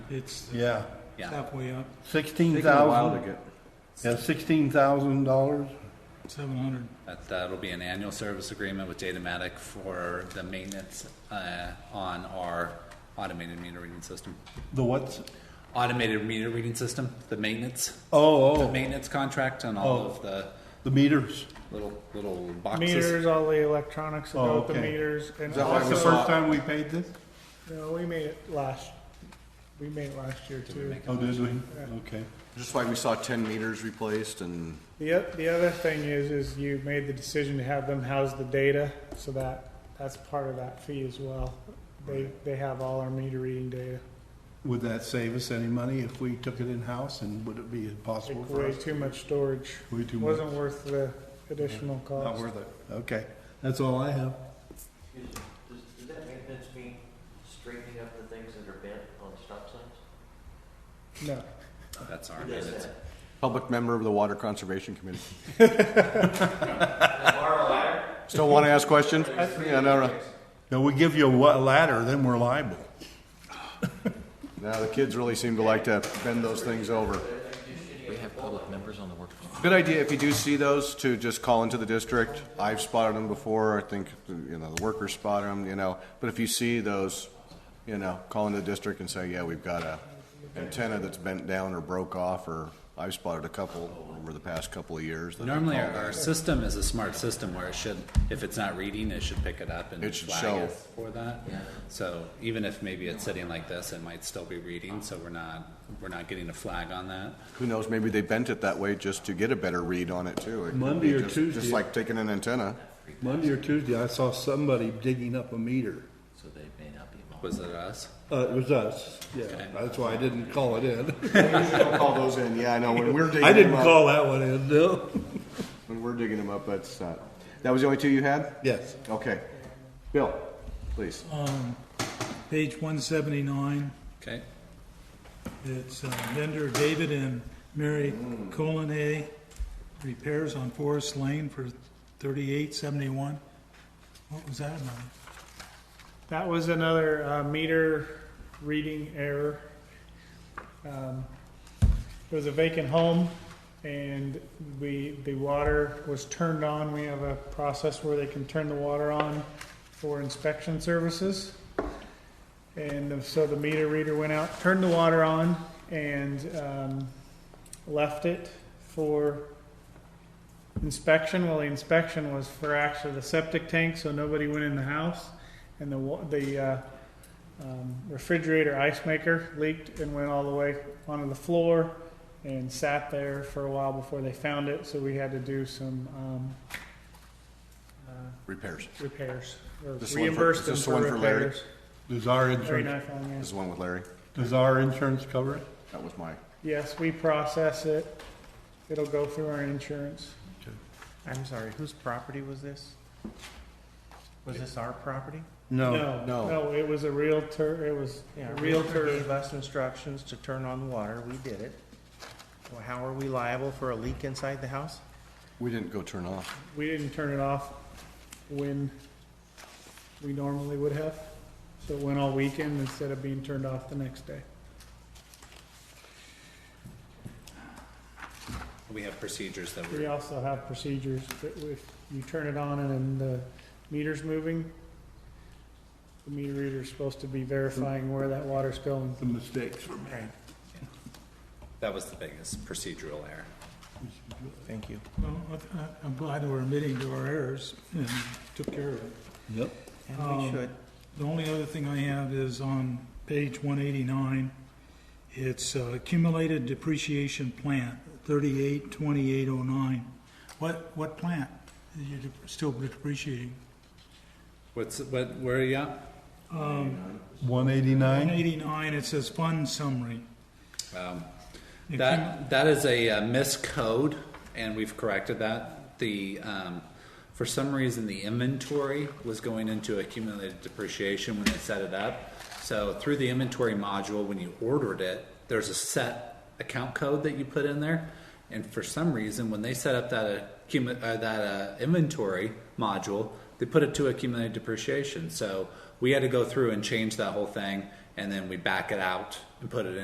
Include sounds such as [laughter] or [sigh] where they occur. It's yeah. Yeah, halfway up, Sixteen Taking a while to thousand, get, yeah, sixteen thousand dollars. seven hundred. that, that'll be an annual service agreement with Datamatic for the maintenance, uh, on our automated meter reading system. The what's, Automated meter reading system, the maintenance, the oh, oh, maintenance contract and all of the the meters. little, little boxes. Meters, all the electronics that Oh, go with the okay. meters, and Is that why That's it the was also, first time we paid this? you know, we made it last, we made it last year too. Oh, did we? Okay. just like we saw ten meters replaced and The, oth- the other thing is, is you made the decision to have them house the data, so that, that's part of that fee as well. They, they have all our meter reading data. Would that save us any money if we took it in-house and would it be possible Take for way us? too much storage. Way too much. Wasn't worth the additional Not cost. worth it. Okay, that's all I have. Excuse me, does, does that maintenance mean straightening up the things that are bent on stop signs? No. That's our Who does maintenance. that? public member of the Water Conservation Committee. Can I borrow a ladder? Still want to ask questions? Yeah, no, no. No, we give you a wa- ladder, then we're liable. No, the kids really seem to like to bend those things over. We have public members on the work. Good idea, if you do see those, to just call into the district. I've spotted them before, I think, you know, the workers spotted them, you know. But if you see those, you know, call into the district and say, yeah, we've got a antenna that's bent down or broke off, or I've spotted a couple over the past couple of years. that I Normally, our, called our in. system is a smart system where it should, if it's not reading, it should pick it up and It should flag show. it for that. So even if maybe it's sitting like this, it might still be reading, so we're not, we're not getting a flag on that. Who knows, maybe they bent it that way just to get a better read on it too. It could be Monday or just- Tuesday. Just like taking an [laughs] antenna. Monday or Tuesday, I saw somebody digging up a meter. So they may not be involved. Was it us? Uh, it was us, yeah. That's why I didn't call it in. Don't call those in, yeah, I know, when we're digging I them didn't up, call that one in, no. when we're digging them up, that's not, that was the only two you had? Yes. Okay. Bill, please. Um, page one seventy-nine, Okay, it's uh, vendor David and Mary Colonnay, repairs on Forest Lane for thirty-eight seventy-one. What was that about? That was another uh, meter reading error. Um, it was a vacant home, and we the water was turned on. We have a process where they can turn the water on for inspection services, and so the meter reader went out, turned the water on, and um, left it for inspection. Well, the inspection was for actually the septic tank, so nobody went in the house and the wa- the uh, um, refrigerator ice maker leaked and went all the way onto the floor and sat there for a while before they found it. So we had to do some um, uh, Repairs. repairs or This one for- reimburse them this for one for Larry? repairs. Does our Very insurance, nice on you. This is the one with Larry. does our insurance cover it? That was my, Yes, we process it. It'll go through our insurance. I'm sorry, whose property was this? Was this our property? No, no. no. It was a realtor. It was Yeah, a our realtor. Gave us instructions to turn on the water, we did it. Well, how are we liable for a leak inside the house? we didn't go turn off. We didn't turn it off when we normally would have, so it went all weekend instead of being turned off the next day. we have procedures that We we're, also have procedures that if you turn it on and then the meter's moving, the meter reader's supposed to be verifying where that water's going. The mistakes were made. that was the biggest procedural error. Thank you. Well, I- I- I'm glad that we're admitting to our errors and took care of it. Yep. And we Um, should. The only other thing I have is on page one eighty-nine. It's uh, accumulated depreciation plant, thirty-eight twenty-eight oh nine. What, what plant are you dep- still depreciating? What's, what, where are you at? One One eighty-nine? eighty-nine, it says fund summary. It came- That, that is a uh, miscode, and we've corrected that. The, um, for some reason, the inventory was going into accumulated depreciation when they set it up. So through the inventory module, when you ordered it, there's a set account code that you put in there. And for some reason, when they set up that accumu- uh, that uh, inventory module, they put it to accumulated depreciation. So we had to go through and change that whole thing, and then we back it out and put it in.